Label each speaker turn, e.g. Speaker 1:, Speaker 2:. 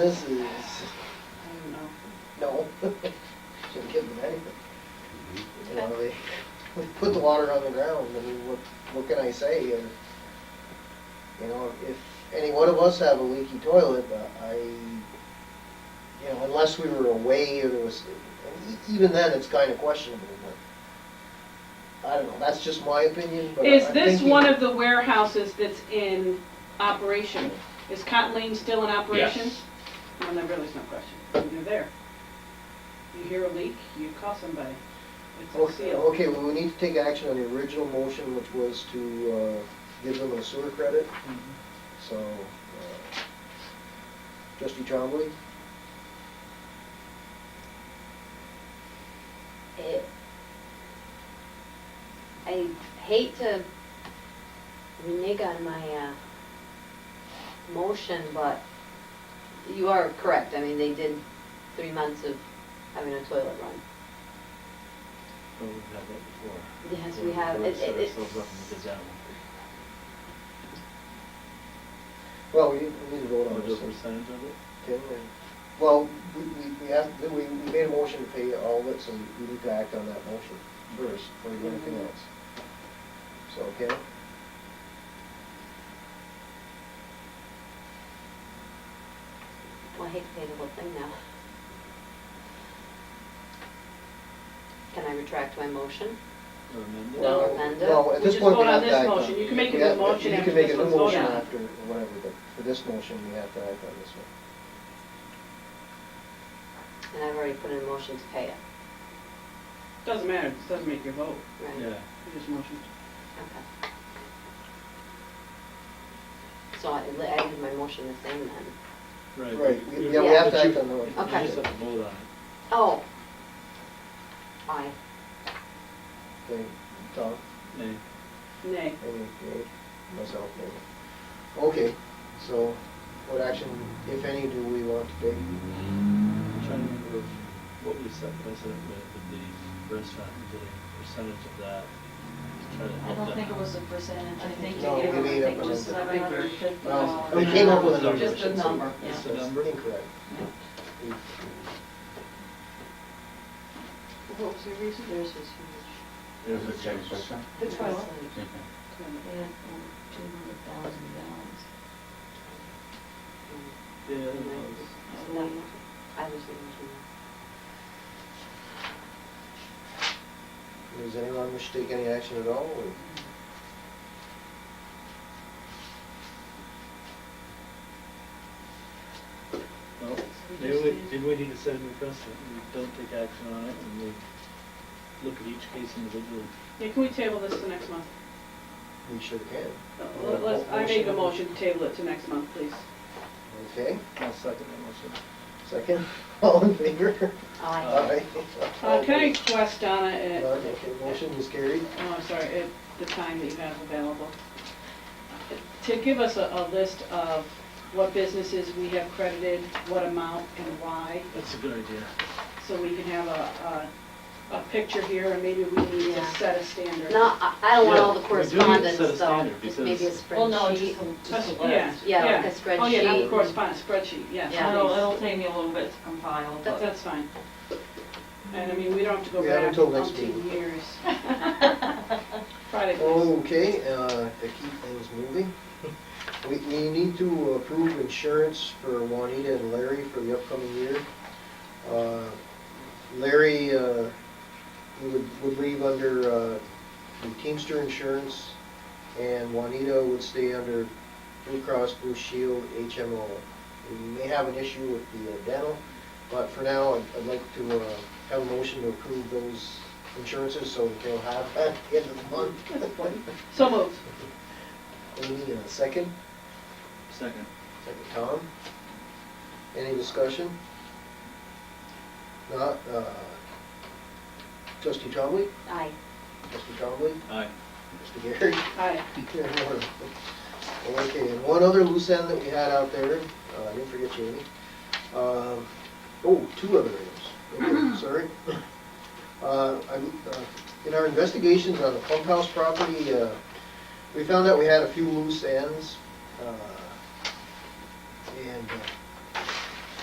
Speaker 1: This is, no, shouldn't give them anything. You know, they, we put the water on the ground, I mean, what, what can I say? And, You know, if any one of us have a leaky toilet, uh, I, you know, unless we were away or there was, and e- even then, it's kinda questionable, but, I don't know, that's just my opinion, but
Speaker 2: Is
Speaker 1: I'm
Speaker 2: this
Speaker 1: thinking-
Speaker 2: one of the warehouses that's in operation? Is Cotton Lane still in operation?
Speaker 3: Yes.
Speaker 2: Well, then really it's no question. You're there. You hear a leak, you call somebody. It's a
Speaker 1: Okay,
Speaker 2: seal.
Speaker 1: okay, well, we need to take action on the original motion, which was to uh, give them a sewer credit.
Speaker 2: Mm-hmm.
Speaker 1: So, uh, trustee Trombley,
Speaker 4: it, I hate to renege on my, uh, motion, but you are correct, I mean, they did three months of having a toilet run.
Speaker 5: But we've had that before.
Speaker 4: Yes, we have,
Speaker 5: We've
Speaker 4: it,
Speaker 5: set
Speaker 4: it, it,
Speaker 5: ourselves up in the down.
Speaker 1: well, we we need to vote on
Speaker 5: What
Speaker 1: this.
Speaker 5: is the percentage of it?
Speaker 1: Tim, and- Well, we, we- we have, we, we made a motion to pay all of it, so we need to act on that motion first, before we do anything
Speaker 2: Mm-hmm.
Speaker 1: else. So, okay?
Speaker 4: well, I hate to pay the whole thing now. Can I retract my motion?
Speaker 5: Or amend it?
Speaker 1: Well,
Speaker 4: Amanda?
Speaker 1: No, at
Speaker 2: uh, We
Speaker 1: this
Speaker 2: just
Speaker 1: point, we
Speaker 2: vote on
Speaker 1: have to
Speaker 2: this
Speaker 1: act on.
Speaker 2: motion. You can make a
Speaker 1: we
Speaker 2: new
Speaker 1: have-
Speaker 2: motion
Speaker 1: you can
Speaker 2: after
Speaker 1: make
Speaker 2: this
Speaker 1: a new
Speaker 2: one's voted
Speaker 1: motion
Speaker 2: on.
Speaker 1: after, or whatever, but for this motion, we have to act on this one.
Speaker 4: And I've already put in a motion to pay it,
Speaker 2: Doesn't matter, it doesn't make your vote.
Speaker 4: right?
Speaker 5: Yeah,
Speaker 2: You just motion.
Speaker 4: Okay. So I, I did my motion the same then.
Speaker 5: right.
Speaker 1: Right,
Speaker 5: but
Speaker 1: we-
Speaker 5: you-
Speaker 1: yeah,
Speaker 4: we
Speaker 5: but
Speaker 1: have to
Speaker 5: you-
Speaker 1: act on the motion.
Speaker 4: Okay.
Speaker 5: You just have to vote on it.
Speaker 4: Oh. Aye.
Speaker 1: Okay, Tom?
Speaker 5: Nay.
Speaker 1: Any,
Speaker 2: Nay.
Speaker 1: any, myself, maybe. Okay, so what action, if any, do we want to take?
Speaker 5: I'm trying to remember if- what we set precedent with with the restaurant, the percentage of that. to try to
Speaker 6: I
Speaker 5: help
Speaker 6: don't
Speaker 5: them
Speaker 6: think it
Speaker 5: out.
Speaker 6: was a percentage, I think you
Speaker 1: No,
Speaker 6: gave,
Speaker 1: we made
Speaker 6: I
Speaker 1: up
Speaker 6: think
Speaker 1: a
Speaker 6: just
Speaker 1: number.
Speaker 6: seven hundred and fifty
Speaker 1: Well,
Speaker 6: dollars.
Speaker 1: We came up with a number. I
Speaker 6: Just a
Speaker 1: should say.
Speaker 6: number, yeah.
Speaker 5: Just a number?
Speaker 1: Incorrect. We-
Speaker 4: What was your reason? Yours was huge.
Speaker 5: There's a
Speaker 7: ten
Speaker 5: change.
Speaker 7: percent.
Speaker 4: The toilet?
Speaker 6: Yeah, um, two hundred thousand dollars.
Speaker 4: Mm.
Speaker 5: Yeah, it was.
Speaker 4: I was the
Speaker 1: Does anyone wish to take any action at all, or?
Speaker 5: No,
Speaker 6: We
Speaker 5: maybe
Speaker 6: just
Speaker 5: we,
Speaker 6: need-
Speaker 5: maybe we need to set a new precedent, we don't take action on it, and we look at each case individually.
Speaker 2: Yeah, can we table this to next month?
Speaker 1: We sure can.
Speaker 2: Uh, let- let's- I make a motion to table it to next month, please.
Speaker 1: Okay,
Speaker 5: I'll second that motion.
Speaker 1: second, all in favor?
Speaker 4: only one. Aye.
Speaker 1: Aye.
Speaker 2: Uh, Can I request, Donna, at,
Speaker 1: Uh,
Speaker 2: oh,
Speaker 1: Okay, motion is carried.
Speaker 2: I'm sorry, at the time that you have available, to give us a, a list of what businesses we have credited, what amount, and why?
Speaker 5: That's a good idea.
Speaker 2: so we can have a, a, a picture here, and maybe we need to
Speaker 4: Yeah.
Speaker 2: set a standard.
Speaker 4: No, I, I don't want all the
Speaker 5: Yeah, we do need to set a
Speaker 4: correspondence, so
Speaker 5: standard
Speaker 4: just
Speaker 5: because-
Speaker 4: maybe a
Speaker 6: Well, no,
Speaker 4: spreadsheet.
Speaker 6: just, a-
Speaker 2: That's-
Speaker 6: just a
Speaker 2: Yeah,
Speaker 6: list.
Speaker 4: Yeah, like a
Speaker 2: Oh, yeah, not the
Speaker 4: spreadsheet.
Speaker 2: correspondence, spreadsheet, yes.
Speaker 4: Yeah.
Speaker 6: It'll, it'll take me a little bit to compile,
Speaker 2: That-
Speaker 6: but.
Speaker 2: That's fine. And I mean, we don't have to go
Speaker 1: We have
Speaker 2: back
Speaker 1: until next
Speaker 2: umpteen
Speaker 1: meeting.
Speaker 2: years. Friday, please.
Speaker 1: Okay, uh, to keep things moving, we, we need to approve insurance for Juanita and Larry for the upcoming year. Uh, Larry, uh, we would, would leave under, uh, the Teamster Insurance, and Juanita would stay under Blue Cross Blue Shield HMO. We may have an issue with the uh, dental, but for now, I'd, I'd like to, uh, have a motion to approve those insurances, so they'll have that at the end of the month.
Speaker 2: So moved.
Speaker 1: Amy, and a second,
Speaker 5: Second.
Speaker 1: second Tom. Any discussion? Not, uh, trustee Trombley,
Speaker 4: Aye.
Speaker 1: trustee Trombley,
Speaker 5: Aye.
Speaker 1: Mr. Gary.
Speaker 2: Aye.
Speaker 1: Okay, and one other loose end that we had out there, uh, I didn't forget you, Amy. Um, Oh, two other items, Okay, sorry. Uh, I- uh, In our investigations on the pump house property, uh, we found out we had a few loose ends. uh, And uh,